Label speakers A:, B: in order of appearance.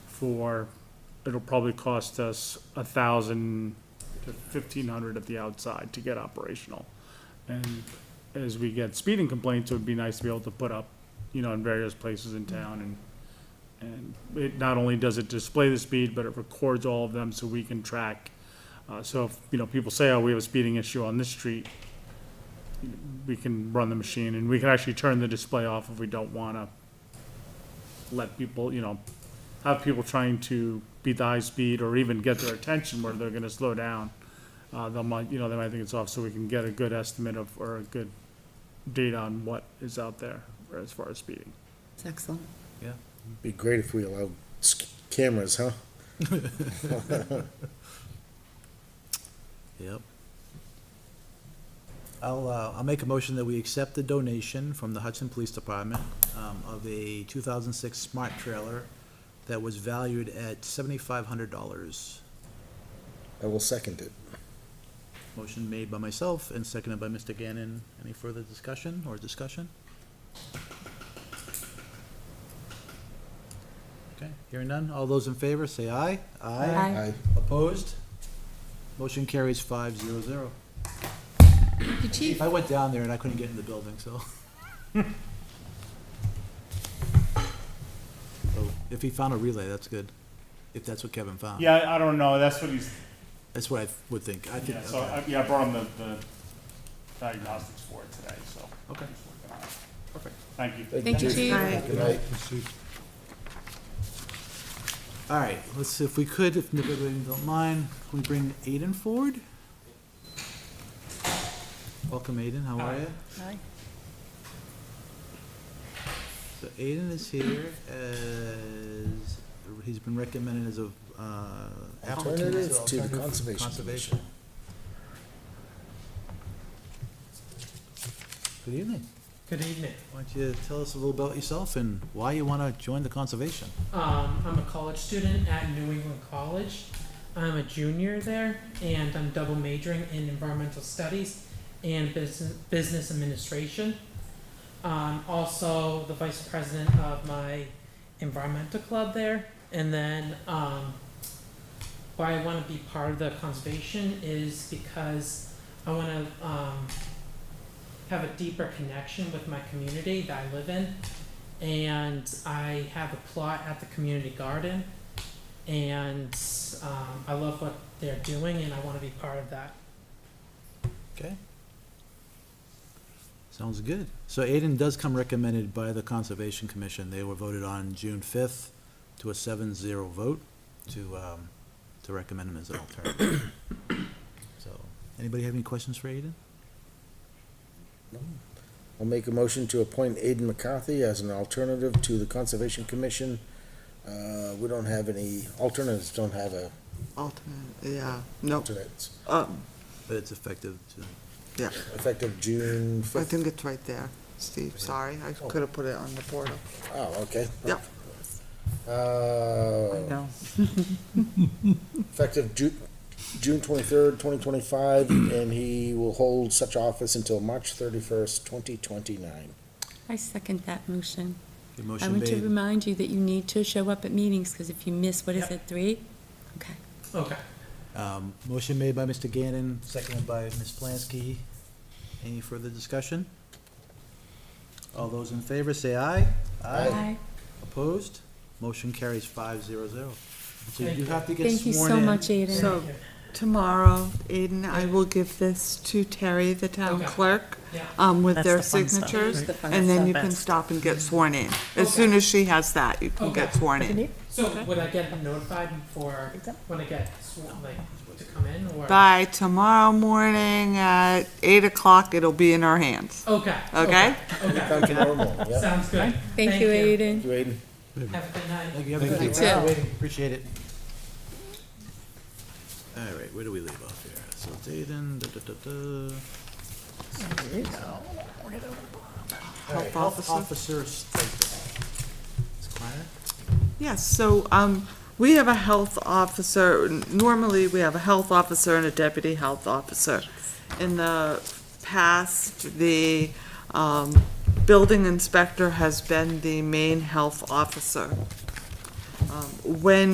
A: for, it'll probably cost us a thousand to fifteen hundred at the outside to get operational. And as we get speeding complaints, it would be nice to be able to put up, you know, in various places in town and, and it, not only does it display the speed, but it records all of them so we can track. Uh, so if, you know, people say, oh, we have a speeding issue on this street, we can run the machine and we can actually turn the display off if we don't wanna let people, you know, have people trying to beat the high speed or even get their attention where they're gonna slow down. Uh, they might, you know, they might think it's off, so we can get a good estimate of, or a good data on what is out there as far as speeding.
B: It's excellent.
C: Yeah.
D: Be great if we allowed s- cameras, huh?
C: Yep. I'll, uh, I'll make a motion that we accept the donation from the Hudson Police Department, um, of a two thousand six smart trailer that was valued at seventy-five hundred dollars.
D: I will second it.
C: Motion made by myself and seconded by Mr. Gannon. Any further discussion or discussion? Okay, hearing none. All those in favor, say aye.
D: I,
B: Aye.
C: Opposed? Motion carries five zero zero.
B: Thank you, Chief.
C: I went down there and I couldn't get in the building, so. So, Oh, If he found a relay, that's good. If that's what Kevin found.
A: Yeah, I don't know, that's what he's,
C: That's what I would think. I think,
A: yeah, so,
C: okay,
A: I- yeah, I brought him the, the diagnostics for it today, so.
C: Okay.
A: he's working on it.
C: perfect.
A: Thank you.
B: Thank you, Chief.
D: Good night.
C: All right, let's, see if we could, if nobody don't mind, can we bring Aiden forward? Welcome Aiden, how are you?
B: Hi.
C: So Aiden is here as, he's been recommended as a, uh. applicant to
D: Alternative to the
C: alternative
D: Conservation Commission.
C: Good evening.
E: Good evening.
C: Why don't you tell us a little about yourself and why you want to join the conservation?
E: Um, I'm a college student at New England College. I'm a junior there, and I'm double majoring in environmental studies and business, business administration. Um, also, the vice president of my environmental club there. And then, um, why I want to be part of the conservation is because I want to um, have a deeper connection with my community that I live in. and I have a plot at the community garden, and um, I love what they're doing, and I want to be part of that.
C: Okay. Sounds good. So Aiden does come recommended by the Conservation Commission. They were voted on June fifth to a seven zero vote to, um, to recommend him as an alternative. So, anybody have any questions for Aiden?
D: I'll make a motion to appoint Aidan McCarthy as an alternative to the Conservation Commission. Uh, we don't have any, alternatives don't have a
B: Alternate, yeah, no,
D: alternates.
B: um,
C: But it's effective to,
B: yeah,
D: Effective June
B: I
D: fifth.
B: think it's right there, Steve, sorry, I
C: Oh.
B: could have put it on the portal.
D: Oh, okay.
B: Yep. I
D: Uh,
B: know.
D: effective Ju- June twenty-third, twenty twenty-five, and he will hold such office until March thirty-first, twenty twenty-nine.
F: I second that motion.
C: the
F: I
C: motion
F: want to
C: made,
F: remind you that you need to show up at meetings, because if you miss, what is
E: Yep.
F: it, three? Okay.
E: Okay.
C: um, motion made by Mr. Gannon, seconded by Ms. Plansky. Any further discussion? All those in favor, say aye.
F: Aye.
C: Opposed? Motion carries five zero zero. So
E: Thank
C: you
E: you.
C: have to get
F: Thank you
C: sworn
F: so
C: in.
F: much, Aiden.
B: So tomorrow, Aiden, I will give this to Terry, the town
E: Okay.
B: clerk,
E: Yeah.
B: um, with
G: That's
B: their
G: the fun stuff.
B: signatures,
G: That's the fun
B: and then
G: stuff.
B: you can
G: That's-
B: stop and get sworn in. As
E: Okay.
B: soon as she has that, you can get
E: Okay.
B: sworn in.
E: So would I get notified for when I get sworn, like to come in or?
B: By tomorrow morning at eight o'clock, it'll be in our hands,
E: Okay.
B: okay?
E: Okay.
D: Come tomorrow morning, yeah.
E: Sounds good.
F: Thank you, Aiden.
D: Thank you, Aidan.
E: Have a good night.
C: Thank you, have a good night.
F: You too.
C: Waiting, Appreciate it. All right, where do we leave off here? So Dayton, da, da, da, da. All right, Health officer stipend. Ms. Kleiner?
B: Yes, so, um, we have a health officer, normally we have a health officer and a deputy health officer. In the past, the, um, building inspector has been the main health officer. Um, When